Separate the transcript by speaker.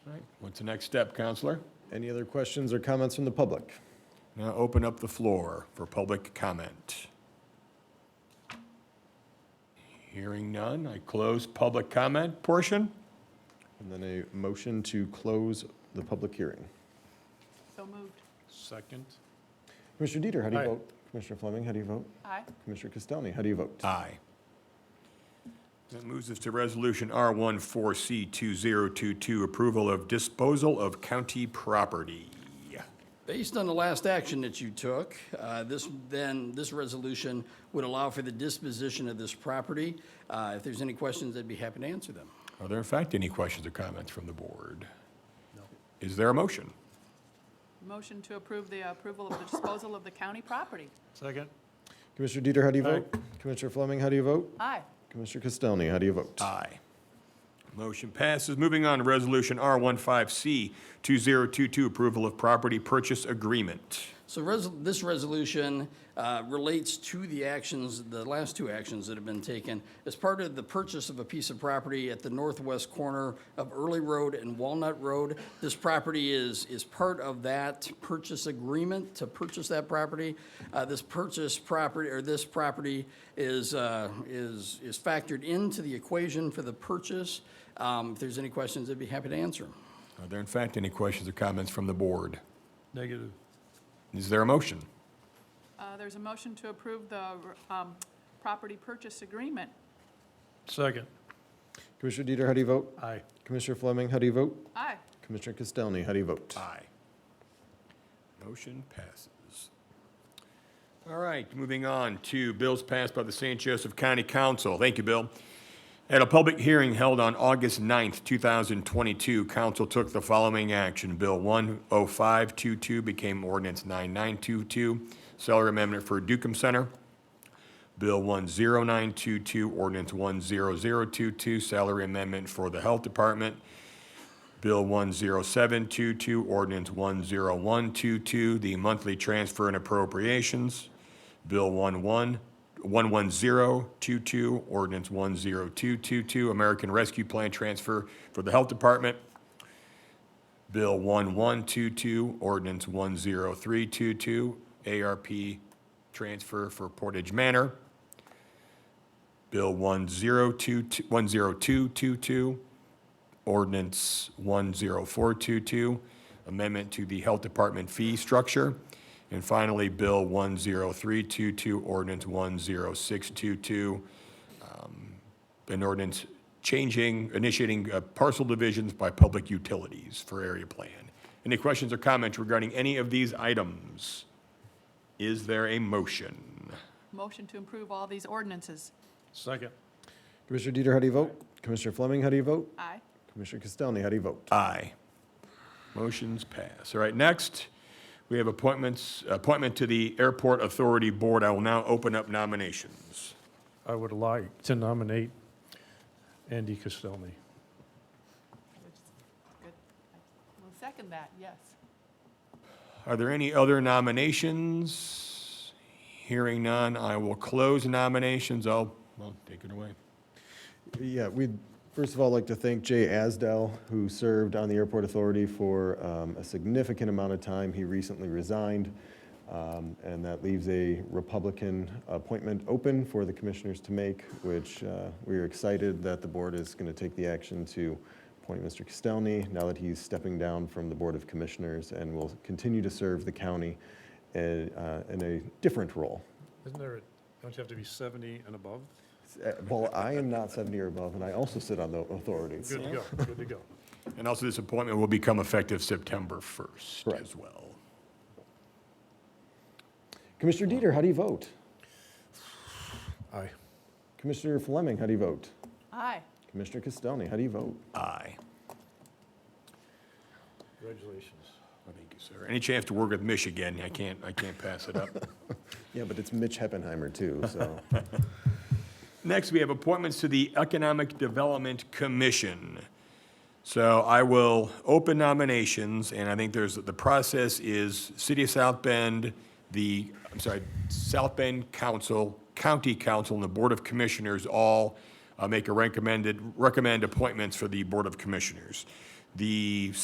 Speaker 1: What's the next step, Counselor?
Speaker 2: Any other questions or comments from the public?
Speaker 1: Now open up the floor for public comment. Hearing none, I close public comment portion.
Speaker 2: And then a motion to close the public hearing.
Speaker 3: So moved.
Speaker 4: Second.
Speaker 2: Commissioner Dieter, how do you
Speaker 4: Aye.
Speaker 2: vote? Commissioner Fleming, how do you vote?
Speaker 3: Aye.
Speaker 2: Commissioner Castelny, how do you vote?
Speaker 1: Aye. That moves us to Resolution R14C2022, approval of disposal of county property.
Speaker 5: Based on the last action that you took, uh, this, then, this resolution would allow for the disposition of this property. Uh, If there's any questions, I'd be happy to answer them.
Speaker 1: Are there in fact any questions or comments from the board? No. Is there a motion?
Speaker 3: Motion to approve the approval of the disposal of the county property.
Speaker 4: Second.
Speaker 2: Commissioner Dieter, how do you vote? Commissioner Fleming, how do you vote?
Speaker 3: Aye.
Speaker 2: Commissioner Castelny, how do you vote?
Speaker 1: Aye. Motion passes. Moving on to Resolution R15C2022, approval of property purchase agreement.
Speaker 5: So res- this resolution uh, relates to the actions, the last two actions that have been taken as part of the purchase of a piece of property at the northwest corner of Early Road and Walnut Road. This property is, is part of that purchase agreement to purchase that property. Uh, This purchase property, or this property is, uh, is, is factored into the equation for the purchase. Um, If there's any questions, I'd be happy to answer them.
Speaker 1: Are there in fact any questions or comments from the board?
Speaker 4: Negative.
Speaker 1: Is there a motion?
Speaker 3: Uh, There's a motion to approve the um, property purchase agreement.
Speaker 4: Second.
Speaker 2: Commissioner Dieter, how do you vote?
Speaker 4: Aye.
Speaker 2: Commissioner Fleming, how do you vote?
Speaker 3: Aye.
Speaker 2: Commissioner Castelny, how do you vote?
Speaker 1: Aye. Motion passes. All right, moving on to bills passed by the St. Joseph County Council. Thank you, Bill. At a public hearing held on August 9th, 2022, council took the following action. Bill 10522 became ordinance 9922, salary amendment for Dukem Center. Bill 10922, ordinance 10022, salary amendment for the Health Department. Bill 10722, ordinance 10122, the monthly transfer and appropriations. Bill 11 11022, ordinance 10222, American Rescue Plan transfer for the Health Department. Bill 1122, ordinance 10322, ARP transfer for Portage Manor. Bill 10222, 10222, ordinance 10422, amendment to the Health Department fee structure. And finally, Bill 10322, ordinance 10622, um, an ordinance changing, initiating uh, parcel divisions by public utilities for area plan. Any questions or comments regarding any of these items? Is there a motion?
Speaker 3: Motion to approve all these ordinances.
Speaker 4: Second.
Speaker 2: Commissioner Dieter, how do you vote? Commissioner Fleming, how do you vote?
Speaker 3: Aye.
Speaker 2: Commissioner Castelny, how do you vote?
Speaker 1: Aye. Motion's pass. All right, next, we have appointments, appointment to the Airport Authority Board. I will now open up nominations.
Speaker 4: I would like to nominate Andy Castelny.
Speaker 3: Good. We'll second that, yes.
Speaker 1: Are there any other nominations? Hearing none, I will close nominations. I'll, well, take it away.
Speaker 2: Yeah, we'd first of all like to thank Jay Asdell, who served on the Airport Authority for um, a significant amount of time. He recently resigned, um, and that leaves a Republican appointment open for the commissioners to make, which uh, we are excited that the board is going to take the action to appoint Mr. Castelny now that he's stepping down from the Board of Commissioners and will continue to serve the county uh, uh, in a different role.
Speaker 4: Isn't there, a- don't you have to be 70 and above?
Speaker 2: Uh, Well, I am not 70 or above, and I also sit on the authority.
Speaker 4: Good to go, good to go.
Speaker 1: And also, this appointment will become effective September 1st
Speaker 2: Correct.
Speaker 1: as well.
Speaker 2: Commissioner Dieter, how do you vote?
Speaker 4: Aye.
Speaker 2: Commissioner Fleming, how do you vote?
Speaker 3: Aye.
Speaker 2: Commissioner Castelny, how do you vote?
Speaker 1: Aye.
Speaker 4: Congratulations.
Speaker 1: Thank you, sir. Any chance to work with Mish again? I can't, I can't pass it up.
Speaker 2: Yeah, but it's Mitch Heppenheimer too, so.
Speaker 1: Next, we have appointments to the Economic Development Commission. So I will open nominations, and I think there's, the process is City of South Bend, the, I'm sorry, South Bend Council, County Council, and the Board of Commissioners all uh, make a recommended, recommend appointments for the Board of Commissioners. The